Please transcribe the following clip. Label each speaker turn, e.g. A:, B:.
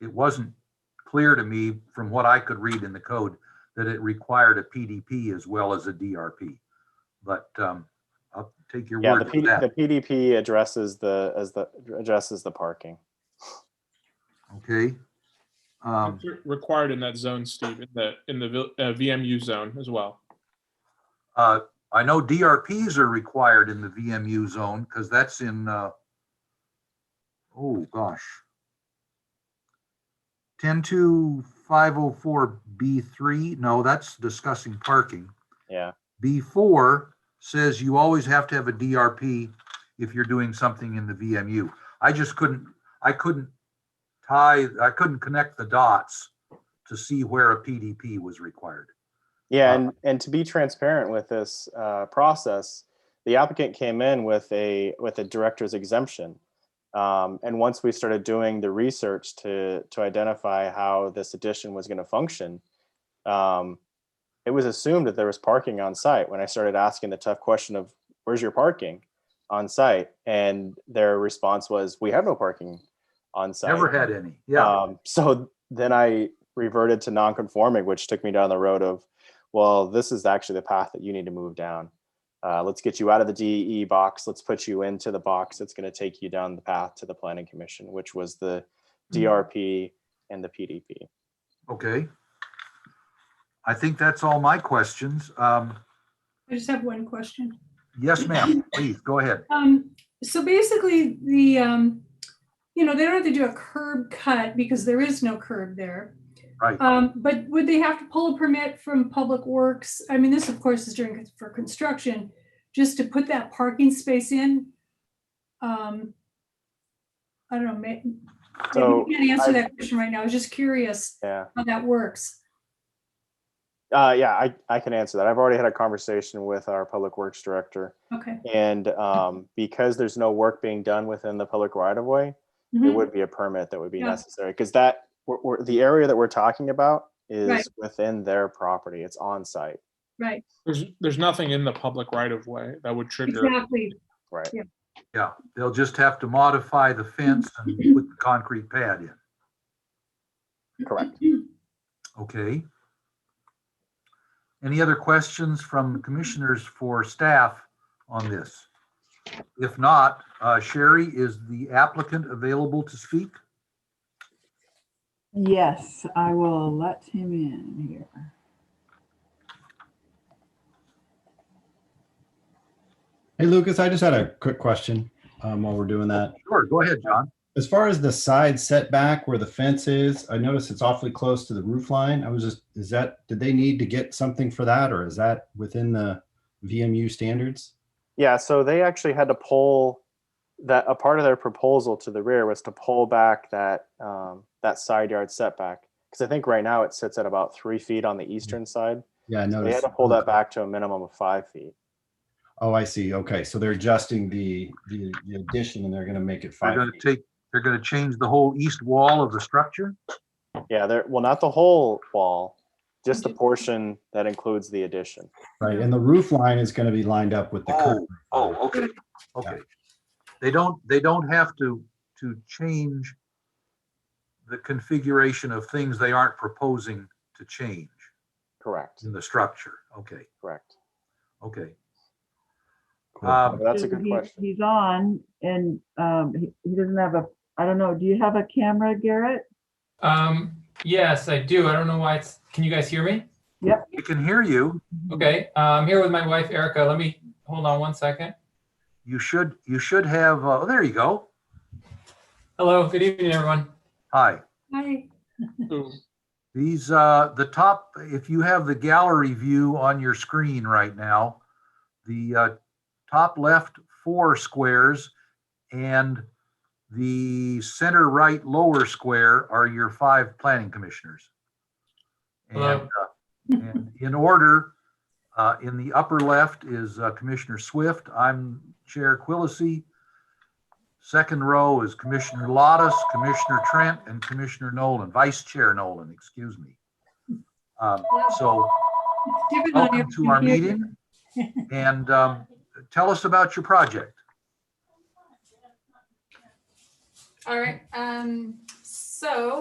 A: it wasn't clear to me from what I could read in the code that it required a PDP as well as a DRP. But um, I'll take your
B: Yeah, the
A: word for
B: P,
A: that.
B: the PDP addresses the, as the, addresses the parking.
A: Okay. Um,
C: It's re- Required in that zone, Steve, in the, in the vil- uh, VMU zone as well.
A: uh, I know DRPs are required in the VMU zone because that's in, uh, oh gosh. 102504B3, no, that's discussing parking.
B: Yeah,
A: B4 says you always have to have a DRP if you're doing something in the VMU. I just couldn't, I couldn't tie, I couldn't connect the dots to see where a PDP was required.
B: yeah,
A: Uh,
B: and, and to be transparent with this, uh, process, the applicant came in with a, with a director's exemption. Um, and once we started doing the research to, to identify how this addition was gonna function, um, it was assumed that there was parking on site when I started asking the tough question of, where's your parking on site? And their response was, we have no parking on site.
A: Never had any, yeah.
B: Um, so then I reverted to non-conforming, which took me down the road of, well, this is actually the path that you need to move down. Uh, let's get you out of the DE box. Let's put you into the box that's going to take you down the path to the planning commission, which was the DRP and the PDP.
A: Okay. I think that's all my questions. Um,
D: I just have one question.
A: yes, ma'am, please, go ahead.
D: Um, so basically the, um, you know, they don't have to do a curb cut because there is no curb there.
A: Right.
D: Um, but would they have to pull a permit from Public Works? I mean, this of course is during, for construction, just to put that parking space in? Um, I don't know, may,
B: So,
D: you can't answer that question right now. I was just curious
B: yeah.
D: how that works.
B: Uh, yeah, I, I can answer that. I've already had a conversation with our public works director.
D: Okay.
B: And um, because there's no work being done within the public right of way, there
D: Mhm.
B: would be a permit that would be
D: Yeah.
B: necessary because that we're, we're- the area that we're talking about is
D: Right.
B: within their property. It's on site,
D: Right,
C: There's, there's nothing in the public right of way that would trigger.
D: exactly.
B: right?
A: Yeah, they'll just have to modify the fence and put the concrete pad in.
B: Correct.
A: Okay. Any other questions from commissioners for staff on this? If not, uh, Sherry, is the applicant available to speak?
E: Yes, I will let him in here.
F: Hey Lucas, I just had a quick question um, while we're doing that.
A: Sure, go ahead, John.
F: As far as the side setback where the fence is, I noticed it's awfully close to the roof line. I was just, is that, did they need to get something for that or is that within the VMU standards?
B: Yeah, so they actually had to pull that a part of their proposal to the rear was to pull back that um, that side yard setback because I think right now it sits at about three feet on the eastern side.
F: Yeah, I
B: They
F: noticed.
B: had to pull that back to a minimum of five feet.
F: Oh, I see. Okay, so they're adjusting the, the the addition and they're gonna make it
A: They're
F: five.
A: going to
F: feet.
A: take, they're going to change the whole east wall of the structure?
B: Yeah, there. Well, not the whole wall, just the portion that includes the addition.
F: Right, and the roof line is gonna be lined up with the curb.
A: Oh, okay, okay. They don't, they don't have to, to change the configuration of things they aren't proposing to change
B: Correct.
A: in the structure. Okay,
B: Correct.
A: okay.
F: Cool.
A: Um,
B: That's a good
E: He-
B: question.
E: He's on and um, he he doesn't have a, I don't know, do you have a camera, Garrett?
G: Um, yes, I do. I don't know why it's, can you guys hear me?
A: We can hear you.
G: Okay, uh, I'm here with my wife Erica. Let me, hold on one second.
A: You should, you should have, uh, there you go.
G: Hello, good evening, everyone.
A: Hi.
D: Hi,
C: Ooh,
A: These, uh, the top, if you have the gallery view on your screen right now, the, uh, top left four squares and the center right lower square are your five planning commissioners. And,
G: Hello.
A: uh, and in order, uh, in the upper left is uh, Commissioner Swift. I'm Chair Quillisi. Second row is Commissioner Lottis, Commissioner Trent, and Commissioner Nolan, Vice Chair Nolan, excuse me. Um, So
D: it's different on
A: welcome to
D: your
A: our
D: computer.
A: meeting. And um, tell us about your project.
H: All right, um, so